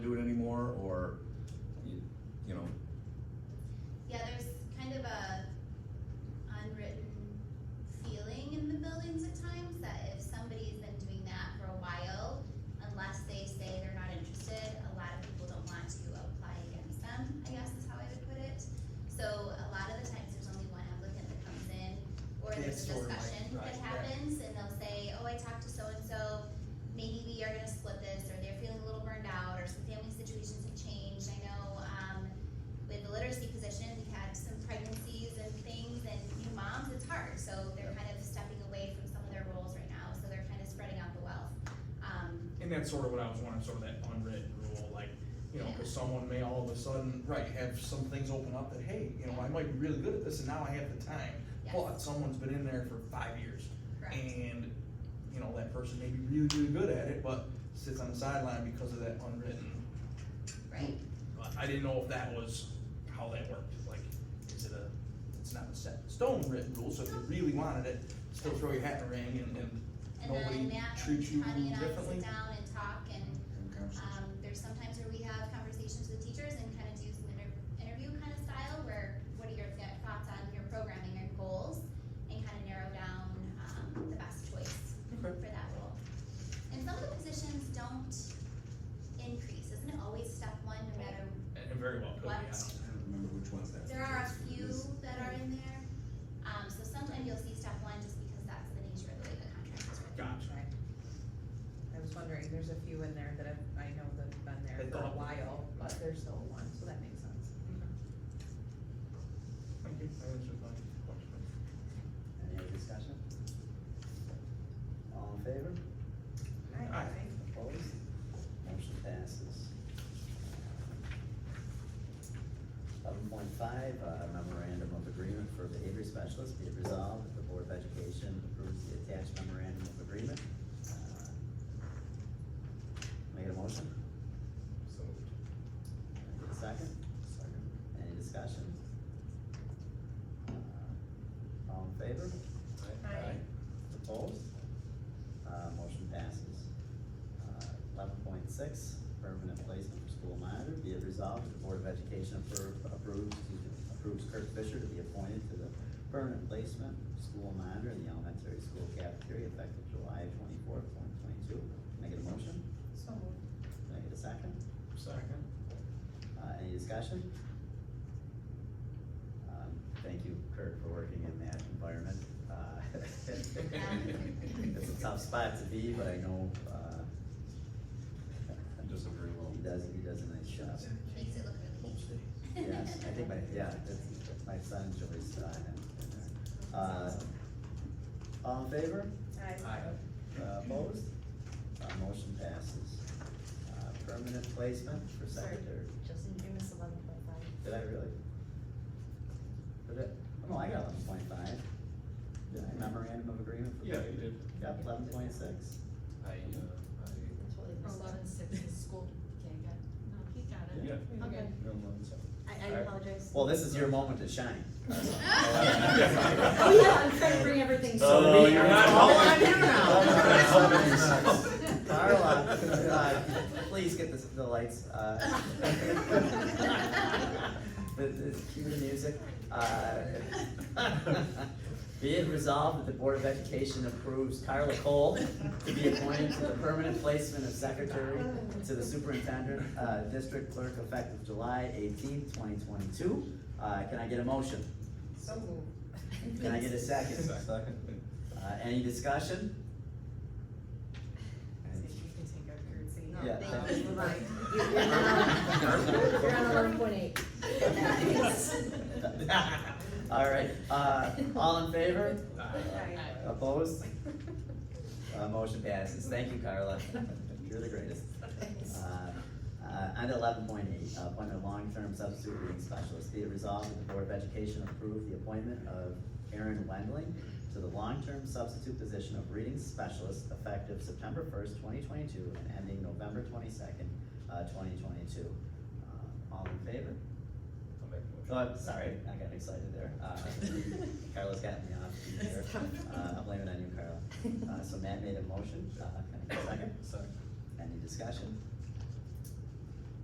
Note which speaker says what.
Speaker 1: "Oh, um, Um,
Speaker 2: that's sort of what I was wanting, sort of that unwritten rule, like, you know, cause someone may all of a sudden, right, have some things open up that, hey, you know, I might be really good at this and now I have the time.
Speaker 1: Yes.
Speaker 2: But someone's been in there for five years
Speaker 1: Correct.
Speaker 2: and, you know, that person may be really, really good at it, but sits on the sideline because of that unwritten.
Speaker 1: Right,
Speaker 2: But I didn't know if that was how that worked, like, is it a, it's not a set in stone written rule, so if you really wanted it, still throw your hat in the ring and, and
Speaker 1: and then
Speaker 2: nobody
Speaker 1: Matt and
Speaker 2: treats you
Speaker 1: Connie and I
Speaker 2: differently?
Speaker 1: sit down and talk and, um, there's sometimes where we have conversations with teachers and kind of do some inter- interview kind of style where, what are your th- thoughts on your programming and goals? And kind of narrow down, um, the best choice
Speaker 2: Okay.
Speaker 1: for that role. And some of the positions don't increase, isn't it always step one, no matter,
Speaker 2: And very well could,
Speaker 1: What?
Speaker 2: yeah.
Speaker 3: I don't remember which ones that.
Speaker 1: there are a few that are in there. Um, so sometimes you'll see step one just because that's the nature of the way the contract is written.
Speaker 2: Gotcha.
Speaker 4: I was wondering, there's a few in there that I've- I know that have been there
Speaker 2: That
Speaker 4: for a
Speaker 2: don't.
Speaker 4: while, but there's still one, so that makes sense.
Speaker 2: Thank you. That answers my question.
Speaker 5: Any other discussion? All in favor?
Speaker 2: Aye.
Speaker 5: Opposed? Motion passes. Eleven point five, uh, memorandum of agreement for behavior specialists, be it resolved that the Board of Education approves the attached memorandum of agreement. Uh, Make a motion,
Speaker 3: So,
Speaker 5: Make a second,
Speaker 3: second.
Speaker 5: any discussion? Uh, All in favor?
Speaker 4: Aye.
Speaker 5: Opposed? Uh, motion passes. Uh, Eleven point six, permanent placement for school monitor, be it resolved, that the Board of Education appro- approves, excuse me, approves Kurt Fisher to be appointed to the permanent placement school monitor in the elementary school cafeteria effective July twenty-fourth, twenty twenty-two. Can I get a motion?
Speaker 4: So moved.
Speaker 5: Can I get a second?
Speaker 2: Second.
Speaker 5: Uh, any discussion? Um, Thank you Kurt for working in that environment. Uh, It's a tough spot to be, but I know, uh,
Speaker 3: It does a very well.
Speaker 5: he does, he does a nice job.
Speaker 1: Makes it look really easy.
Speaker 5: Yes, I think my, yeah, it's, my son enjoys uh, him in there. Uh, All in favor?
Speaker 4: Aye.
Speaker 5: Uh, Opposed? Uh, motion passes. Uh, permanent placement for
Speaker 6: Sorry,
Speaker 5: secretary.
Speaker 6: Justin, you missed eleven point five.
Speaker 5: Did I really? Did it, oh, no, I got eleven point five. Did I memorandum of agreement for?
Speaker 3: Yeah, you did.
Speaker 5: Yep, eleven point six.
Speaker 3: I, uh, I.
Speaker 6: Totally
Speaker 7: Or
Speaker 6: missed that.
Speaker 7: eleven six is school, okay, got, no, he got it.
Speaker 3: Yeah.
Speaker 6: Okay,
Speaker 3: No, no, it's-
Speaker 6: I, I apologize.
Speaker 5: Well, this is your moment to shine.
Speaker 6: Oh, yeah, I'm trying to bring everything.
Speaker 5: Oh, you're not
Speaker 6: Oh, I'm
Speaker 5: helping.
Speaker 6: here now.
Speaker 5: Carla, uh, please get the, the lights, uh. The, the, cue the music, uh. Be it resolved that the Board of Education approves Carla Cole to be appointed to the permanent placement of secretary to the superintendent, uh, district clerk effective July eighteenth, twenty twenty-two. Uh, can I get a motion?
Speaker 4: So moved.
Speaker 5: Can I get a second?
Speaker 3: Second.
Speaker 5: Uh, any discussion?
Speaker 4: If you can take our currency. No,
Speaker 5: Yeah.
Speaker 4: thank you. You're lying.
Speaker 6: Oh, You're on eleven point eight.
Speaker 5: All right, uh, all in favor?
Speaker 4: Aye.
Speaker 5: Opposed? Uh, motion passes, thank you, Carla, you're the greatest. Uh, uh, and eleven point eight, appointment of long-term substitute reading specialist, be it resolved that the Board of Education approve the appointment of Aaron Wendling to the long-term substitute position of reading specialist effective September first, twenty twenty-two, and ending November twenty-second, uh, twenty twenty-two. Uh, All in favor?
Speaker 3: I'll make a motion.
Speaker 5: Oh, I'm sorry, I got excited there. Uh, Carla's got me off beat there. Uh, I blame it on you, Carla. Uh, so Matt made a motion, uh, can I get a second?
Speaker 3: Second.
Speaker 5: Any discussion?